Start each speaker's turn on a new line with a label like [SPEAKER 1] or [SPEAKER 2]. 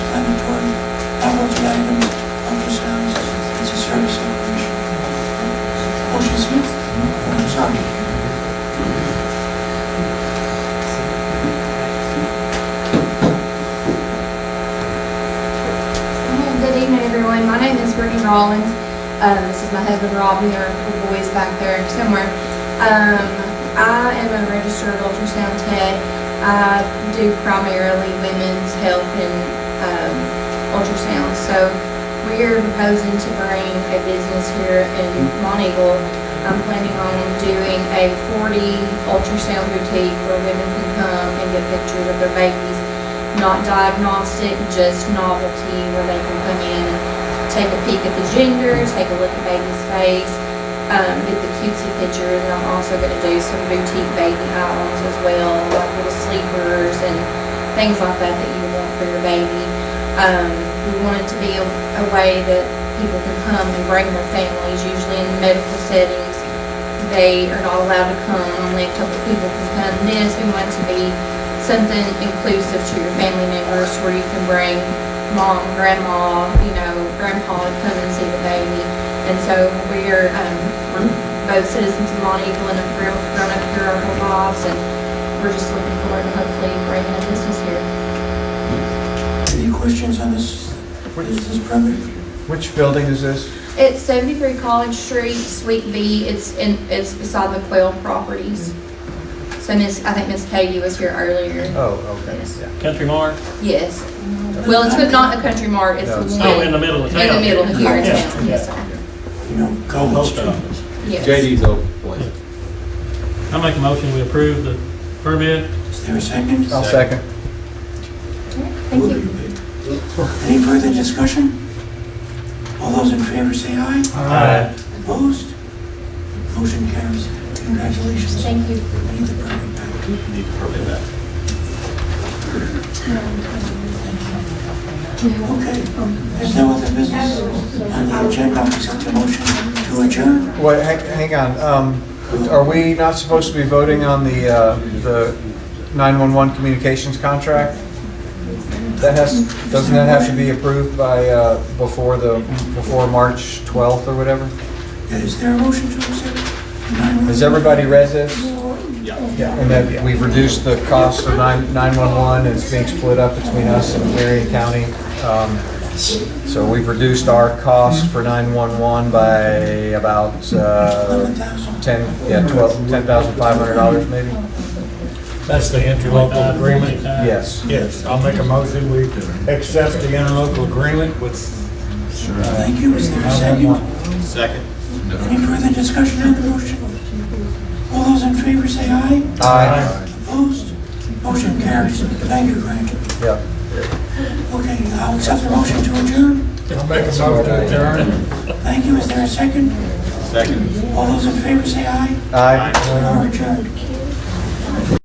[SPEAKER 1] afternoon, everyone. My name is Brittany Rollins. Uh, this is my husband Rob and there are boys back there somewhere. Um, I am a registered ultrasound tech. I do primarily women's health and um, ultrasound. So we are proposing to bring a business here in Mont Eagle. I'm planning on doing a 40 ultrasound boutique where women can come and get pictures of their babies not diagnostic, just novelty, where they can come in and take a peek at the gender, take a look at baby's face, um, get the cutesy pictures, and I'm also gonna do some boutique baby items as well, like little sleepers and things like that that you want for your baby. Um, we want it to be a, a way that people can come and bring their families, usually in medical settings, they are not allowed to come, only a couple people can come. This, we want to be something inclusive to your family members where you can bring mom, grandma, you know, grandpa to come and see the baby. And so we're, um, we're both citizens of Mont Eagle and have grown grown up here our whole lives and we're just looking forward to hopefully bringing a business here.
[SPEAKER 2] Any questions on this, what is this permit?
[SPEAKER 3] Which building is this?
[SPEAKER 1] It's seventy-three College Street, Suite B, it's in, it's beside the Quail Properties. So Miss, I think Miss Katie was here earlier.
[SPEAKER 3] Oh, okay,
[SPEAKER 1] Yes.
[SPEAKER 3] yeah.
[SPEAKER 4] Country Mart?
[SPEAKER 1] Yes. Well, it's not a country mart, it's
[SPEAKER 3] No, it's
[SPEAKER 1] one.
[SPEAKER 4] Oh, in the middle of
[SPEAKER 1] In the
[SPEAKER 4] town.
[SPEAKER 1] middle here in
[SPEAKER 4] Yeah,
[SPEAKER 1] town,
[SPEAKER 4] yeah.
[SPEAKER 1] yes, sir.
[SPEAKER 2] You know, College
[SPEAKER 4] Post
[SPEAKER 2] Street.
[SPEAKER 4] office.
[SPEAKER 1] Yes.
[SPEAKER 5] JD's old place.
[SPEAKER 4] I make a motion, we approve the permit.
[SPEAKER 2] Is there a second?
[SPEAKER 3] I'll second.
[SPEAKER 1] Thank you.
[SPEAKER 2] Any further discussion? All those in favor say aye. Opposed? Motion carries. Congratulations.
[SPEAKER 1] Thank you.
[SPEAKER 2] We Need the permit back. Okay. um, There's no other business on the agenda. I'll accept a motion to adjourn.
[SPEAKER 3] Wait, hang, hang on, um, are we not supposed to be voting on the, uh, the 911 communications contract? That has, doesn't that have to be approved by, uh, before the, before March 12th or whatever?
[SPEAKER 2] Yeah, Is there a motion to accept?
[SPEAKER 3] Has everybody read this? Yeah. And that we've reduced the cost of 9 911, and it's being split up between us and Marion County. Um, So we've reduced our cost for 911 by about uh,
[SPEAKER 2] Eleven thousand.
[SPEAKER 3] 10, yeah, 12, $10,500 maybe?
[SPEAKER 6] That's the interlocal agreement?
[SPEAKER 3] Yes.
[SPEAKER 6] Yes, I'll make a motion, we accept the interlocal agreement with
[SPEAKER 2] Thank you. Is there a second?
[SPEAKER 6] nine-one-one.
[SPEAKER 5] Second.
[SPEAKER 2] Any further discussion on the motion? All those in favor say aye.
[SPEAKER 3] Aye.
[SPEAKER 2] Opposed? Motion carries. Thank you, Greg.
[SPEAKER 3] Yep.
[SPEAKER 2] Okay, uh, I'll accept the motion to adjourn.
[SPEAKER 6] I'll make a motion to adjourn.
[SPEAKER 2] Thank you. Is there a second?
[SPEAKER 5] Second.
[SPEAKER 2] All those in favor say aye.
[SPEAKER 3] Aye.
[SPEAKER 2] We are adjourned.